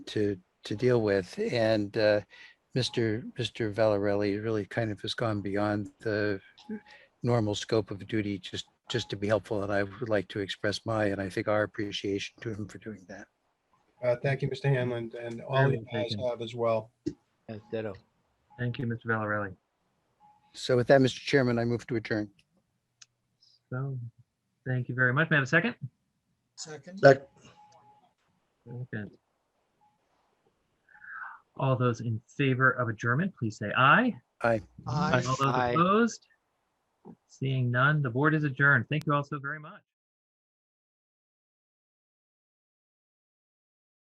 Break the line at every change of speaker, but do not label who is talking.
to, to deal with. And uh, Mr. Mr. Valarelli really kind of has gone beyond the normal scope of duty just, just to be helpful. And I would like to express my, and I think our appreciation to him for doing that.
Uh, thank you, Mr. Hanlon, and all
Very
you
well
guys
taken.
have as well.
Yes, ditto.
Thank you, Mr. Valarelli.
So with that, Mr. Chairman, I move to adjourn.
So, thank you very much. May I have a second?
Second.
Sec-
Second. All those in favor of adjournment, please say aye.
Aye.
All those
Aye.
opposed? Seeing none, the board is adjourned. Thank you all so very much.